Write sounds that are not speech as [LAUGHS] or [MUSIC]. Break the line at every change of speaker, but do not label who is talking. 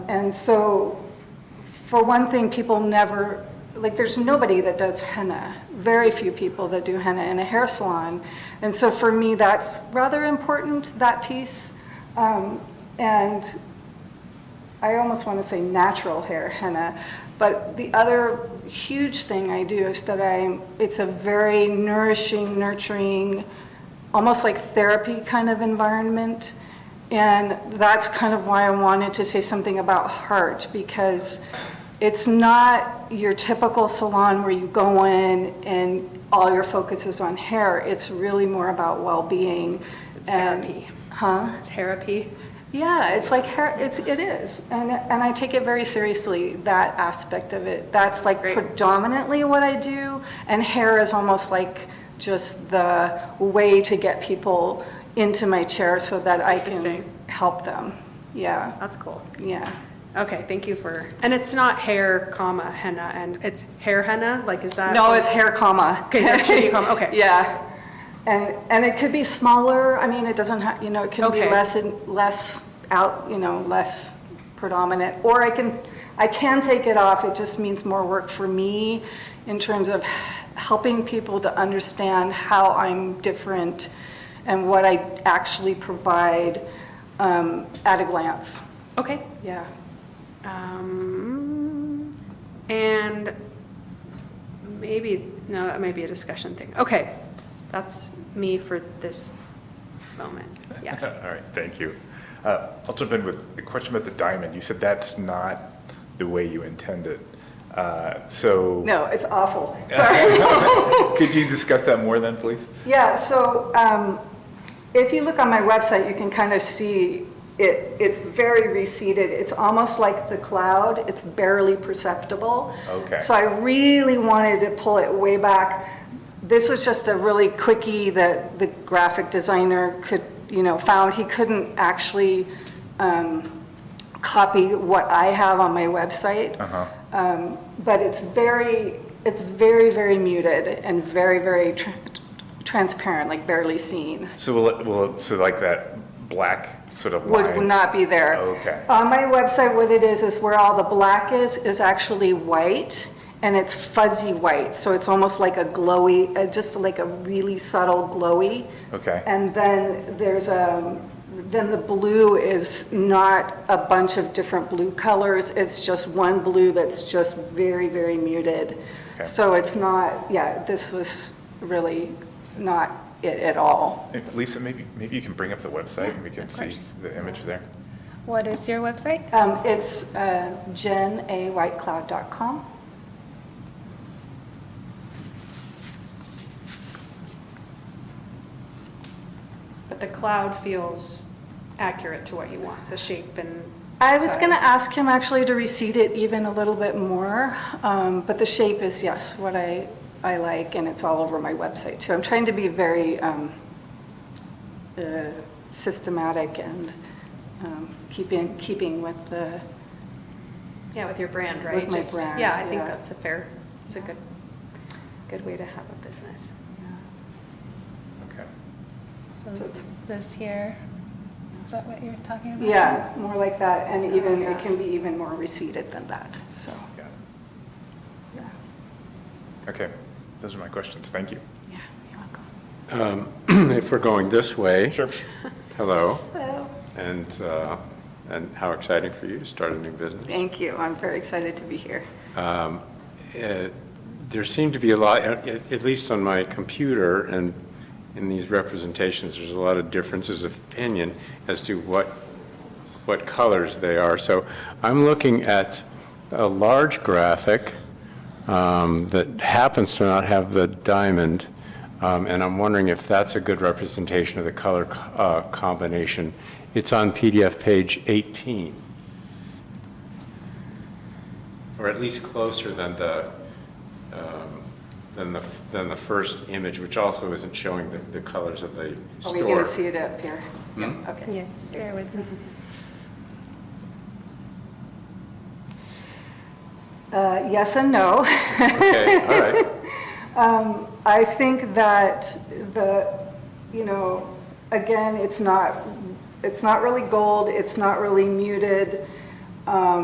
And so, for one thing, people never, like, there's nobody that does henna, very few people that do henna in a hair salon. And so for me, that's rather important, that piece. Um, And I almost want to say natural hair henna, but the other huge thing I do is that I, it's a very nourishing, nurturing, almost like therapy kind of environment. And that's kind of why I wanted to say something about heart, because it's not your typical salon where you go in and all your focus is on hair. It's really more about well-being. and-
therapy.
Huh?
Um, Therapy.
Yeah, it's like, hair- it's, it is, and, and I take it very seriously, that aspect of it. That's like
Great.
predominantly what I do, and hair is almost like just the way to get people into my chair so that I can
Interesting.
help them. Yeah,
That's cool.
yeah.
Okay, thank you for, and it's not hair, comma, henna, and it's hair henna? Like, is that?
No, it's hair comma.
Um, Okay, hair comma, okay.
[LAUGHS] Yeah. And, and it could be smaller, I mean, it doesn't have, you know, it can be
Okay.
less, and less out, you know, less predominant. Or I can, I can take it off, it just means more work for me in terms of helping people to understand how I'm different and what I actually provide um, at a glance.
Okay.
Yeah.
Um, And maybe, no, that might be a discussion thing. Okay, that's me for this moment. Yeah.
[LAUGHS] All right, thank you. Uh, I'll jump in with a question about the diamond. You said that's not the way you intend it. Uh, So
No, it's awful. Sorry.
could you discuss that more then, please?
Yeah, so um, if you look on my website, you can kind of see it, it's very receded. It's almost like the cloud, it's barely perceptible.
Okay.
So I really wanted to pull it way back. This was just a really quickie that the graphic designer could, you know, found. He couldn't actually um, copy what I have on my website.
Uh-huh.
Um, But it's very, it's very, very muted and very, very tr- transparent, like barely seen.
So will, it- will, it- so like that black sort of lines?
Would not be there.
Okay.
On my website, what it is, is where all the black is, is actually white, and it's fuzzy white, so it's almost like a glowy, uh, just like a really subtle glowy.
Okay.
And then there's a, then the blue is not a bunch of different blue colors, it's just one blue that's just very, very muted.
Okay.
So it's not, yeah, this was really not it at all.
Eh, Lisa, maybe, maybe you can bring up the website and we can see
course.
the image there.
What is your website?
Um, It's uh, jenawhitecloud.com.
But the cloud feels accurate to what you want, the shape and.
I was going to
size.
ask him actually to recede it even a little bit more, um, but the shape is, yes, what I, I like, and it's all over my website too. I'm trying to be very um, uh, systematic and um, keeping, keeping with the,
Yeah, with your brand, right?
With my
Just-
brand,
Yeah, I think
yeah.
that's a fair, it's a good, good way to have a business.
Okay.
So
So
it's-
this here, is that what you're talking
Mm-hmm.
about?
yeah, more like that, and even, it can be even more receded than that, so,
Got it.
yeah,
Okay, those are my questions. Thank you.
yeah, you're welcome.
Um, [CLEARS THROAT] if we're going this way.
Sure.
Hello,
Hello.
and, uh, and how exciting for you to start a new business.
Thank you, I'm very excited to be here.
Uh, There seem to be a lot, at at least on my computer and in these representations, there's a lot of differences of opinion as to what, what colors they are. So I'm looking at a large graphic um, that happens to not have the diamond, um, and I'm wondering if that's a good representation of the color co- uh, combination. It's on PDF page 18 or at least closer than the, um, than the, than the first image, which also isn't showing the, the colors of the
Are
store.
Oh, we going to see it up here?
Hmm?
Okay.
Yes, bear with me.
Uh, Yes and no.
Okay, all right.
Um, I think that the, you know, again, it's not, it's not really gold, it's not really muted. Um,